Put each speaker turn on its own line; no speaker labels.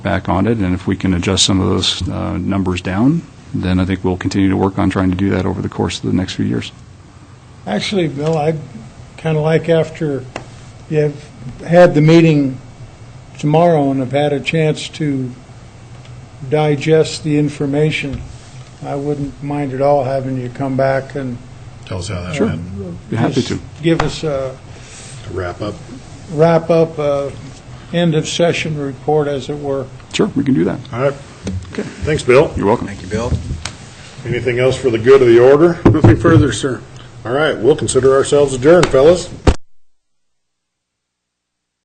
back on it, and if we can adjust some of those uh, numbers down, then I think we'll continue to work on trying to do that over the course of the next few years.
Actually, Bill, I'd kind of like after you've had the meeting tomorrow and have had a chance to digest the information, I wouldn't mind at all having you come back and
Tell us how that
Sure.
went.
Be happy to.
just give us a
To wrap up,
wrap-up, a end-of-session report, as it were.
Sure, we can do that.
all right. Thanks, Bill.
You're welcome.
Thank you, Bill.
Anything else for the good of the order?
Nothing further, sir.
All right, we'll consider ourselves adjourned, fellas.